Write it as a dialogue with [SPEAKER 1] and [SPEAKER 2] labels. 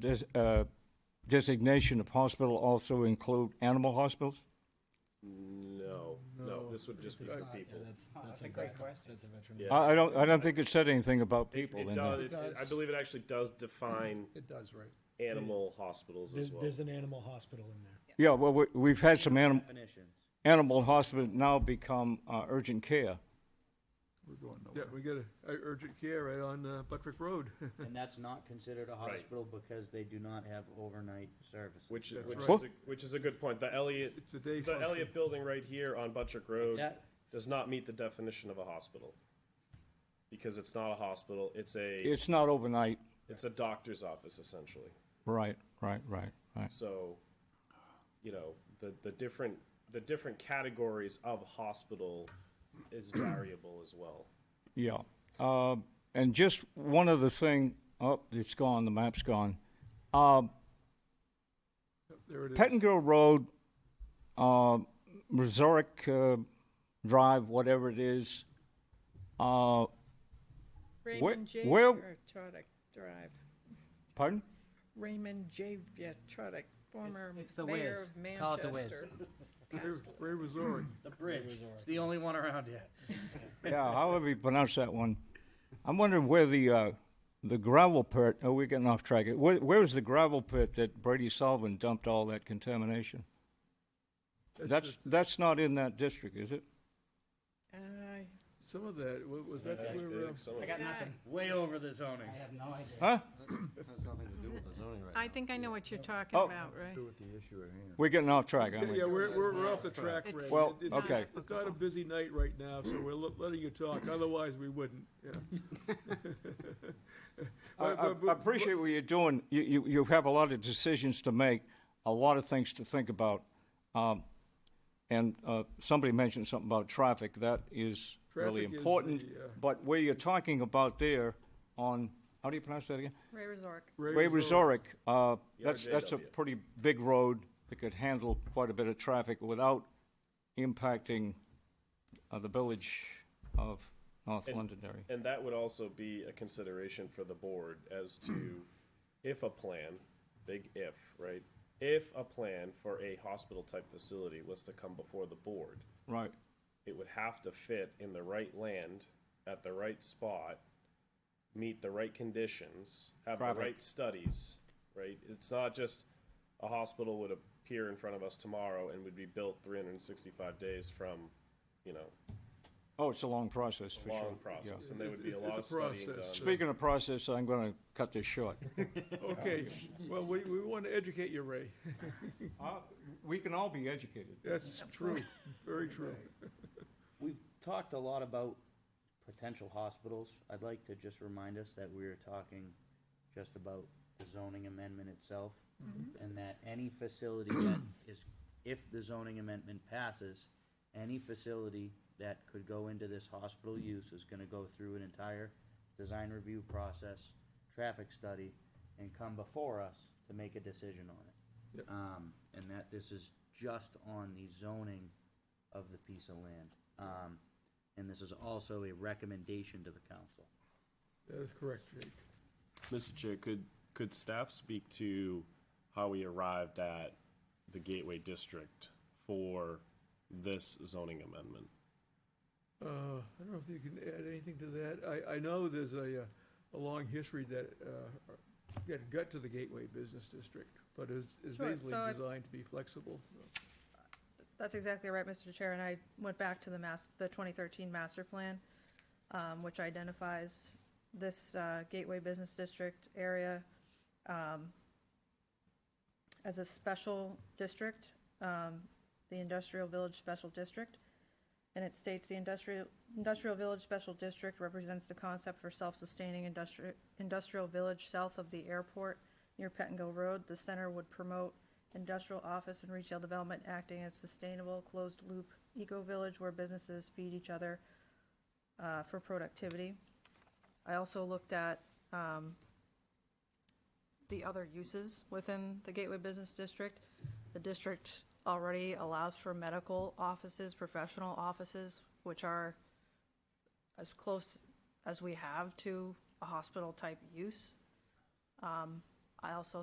[SPEAKER 1] des- uh, designation of hospital also include animal hospitals?
[SPEAKER 2] No, no, this would just be for people.
[SPEAKER 3] That's a great question.
[SPEAKER 1] I I don't, I don't think it said anything about people in
[SPEAKER 2] It
[SPEAKER 1] there.
[SPEAKER 2] does, it- it- I believe it actually does define
[SPEAKER 3] It does, right?
[SPEAKER 2] animal hospitals as
[SPEAKER 4] There's,
[SPEAKER 2] well.
[SPEAKER 4] there's an animal hospital in there.
[SPEAKER 1] Yeah, well, we- we've had some animal, animal hospitals now become uh, urgent care.
[SPEAKER 3] We're going nowhere.
[SPEAKER 5] Yeah, we got a a urgent care right on uh, Buttrick Road.
[SPEAKER 6] And that's not considered a hospital because they do not have overnight services.
[SPEAKER 2] Which,
[SPEAKER 5] That's
[SPEAKER 2] which
[SPEAKER 5] right.
[SPEAKER 2] is, a- which is a good point. The Elliott,
[SPEAKER 5] It's a day
[SPEAKER 2] the
[SPEAKER 5] function.
[SPEAKER 2] Elliott Building right here on Buttrick Road
[SPEAKER 6] that-
[SPEAKER 2] does not meet the definition of a hospital. Because it's not a hospital, it's a,
[SPEAKER 1] It's not overnight.
[SPEAKER 2] it's a doctor's office essentially.
[SPEAKER 1] Right, right, right, right.
[SPEAKER 2] So, you know, the, the different, the different categories of hospital is variable as well.
[SPEAKER 1] Yeah. Um, and just one other thing, oh, it's gone, the map's gone. Um,
[SPEAKER 5] There it is.
[SPEAKER 1] Pettingill Road, uh, Resorick, uh, Drive, whatever it is, uh,
[SPEAKER 7] Raymond J.
[SPEAKER 1] where-
[SPEAKER 7] Vietrotic Drive.
[SPEAKER 1] pardon?
[SPEAKER 7] Raymond J. Vietrotic, former
[SPEAKER 6] it's the
[SPEAKER 7] mayor
[SPEAKER 6] whiz.
[SPEAKER 7] of
[SPEAKER 6] Call it the whiz.
[SPEAKER 7] Manchester.
[SPEAKER 5] Ray Ray Rosori.
[SPEAKER 6] The bridge, it's the only one around yet.
[SPEAKER 1] Yeah, however you pronounce that one. I'm wondering where the, uh, the gravel pit, oh, we're getting off track. Where, where was the gravel pit that Brady Sullivan dumped all that contamination? That's,
[SPEAKER 5] just-
[SPEAKER 1] that's not in that district, is it?
[SPEAKER 7] Uh,
[SPEAKER 5] Some of that, wa- was that where, uh,
[SPEAKER 2] Some of
[SPEAKER 6] I got nothing, way over the zoning.
[SPEAKER 1] Huh?
[SPEAKER 7] I think I know what you're talking
[SPEAKER 1] Oh.
[SPEAKER 7] about, right?
[SPEAKER 1] We're getting off track, aren't we?
[SPEAKER 5] yeah, we're, we're we're off the track, Ray.
[SPEAKER 7] It's-
[SPEAKER 1] Well,
[SPEAKER 5] It- it's-
[SPEAKER 1] okay.
[SPEAKER 5] It's not a busy night right now, so we're le- letting you talk, otherwise we wouldn't, yeah.
[SPEAKER 1] I, I- I appreciate what you're doing. You, you, you have a lot of decisions to make, a lot of things to think about. Um, and, uh, somebody mentioned something about traffic. That is really
[SPEAKER 5] Traffic is
[SPEAKER 1] important.
[SPEAKER 5] the, uh,
[SPEAKER 1] But where you're talking about there on, how do you pronounce that again?
[SPEAKER 7] Ray Resort.
[SPEAKER 1] Ray Resorick, uh, that's,
[SPEAKER 2] RJW.
[SPEAKER 1] that's a pretty big road that could handle quite a bit of traffic without impacting, uh, the village of North Londonderry.
[SPEAKER 2] And that would also be a consideration for the board as to if a plan, big if, right? If a plan for a hospital-type facility was to come before the board,
[SPEAKER 1] Right.
[SPEAKER 2] it would have to fit in the right land, at the right spot, meet the right conditions, have the
[SPEAKER 1] Traffic.
[SPEAKER 2] right studies, right? It's not just a hospital would appear in front of us tomorrow and would be built three hundred and sixty-five days from, you know,
[SPEAKER 1] Oh, it's a long process, for sure.
[SPEAKER 2] long process, and there would be a
[SPEAKER 5] It's-
[SPEAKER 2] lot of
[SPEAKER 5] it's a
[SPEAKER 2] studying done.
[SPEAKER 5] process.
[SPEAKER 1] Speaking of process, I'm going to cut this short.
[SPEAKER 5] Okay, well, we, we want to educate you, Ray.
[SPEAKER 1] Uh, We can all be educated.
[SPEAKER 5] That's true, very true.
[SPEAKER 6] We've talked a lot about potential hospitals. I'd like to just remind us that we are talking just about the zoning amendment itself. And that any facility that is, if the zoning amendment passes, any facility that could go into this hospital use is gonna go through an entire design review process, traffic study, and come before us to make a decision on it. Um, and that this is just on the zoning of the piece of land. Um, and this is also a recommendation to the council.
[SPEAKER 5] That is correct, Jake.
[SPEAKER 2] Mr. Chair, could, could staff speak to how we arrived at the gateway district for this zoning amendment?
[SPEAKER 5] Uh, I don't know if you can add anything to that. I, I know there's a, uh, a long history that, uh, got got to the Gateway Business District, but is, is
[SPEAKER 7] Sure,
[SPEAKER 5] basically
[SPEAKER 7] so I-
[SPEAKER 5] designed to be flexible.
[SPEAKER 7] That's exactly right, Mr. Chair, and I went back to the mas, the 2013 master plan, um, which identifies this, uh, Gateway Business District area, um, as a special district, um, the Industrial Village Special District. And it states the industrial, Industrial Village Special District represents the concept for self-sustaining industrial, industrial village south of the airport near Pettingill Road. The center would promote industrial office and retail development acting as sustainable, closed-loop eco-village where businesses feed each other uh, for productivity. I also looked at um, the other uses within the Gateway Business District. The district already allows for medical offices, professional offices, which are as close as we have to a hospital-type use. Um, I also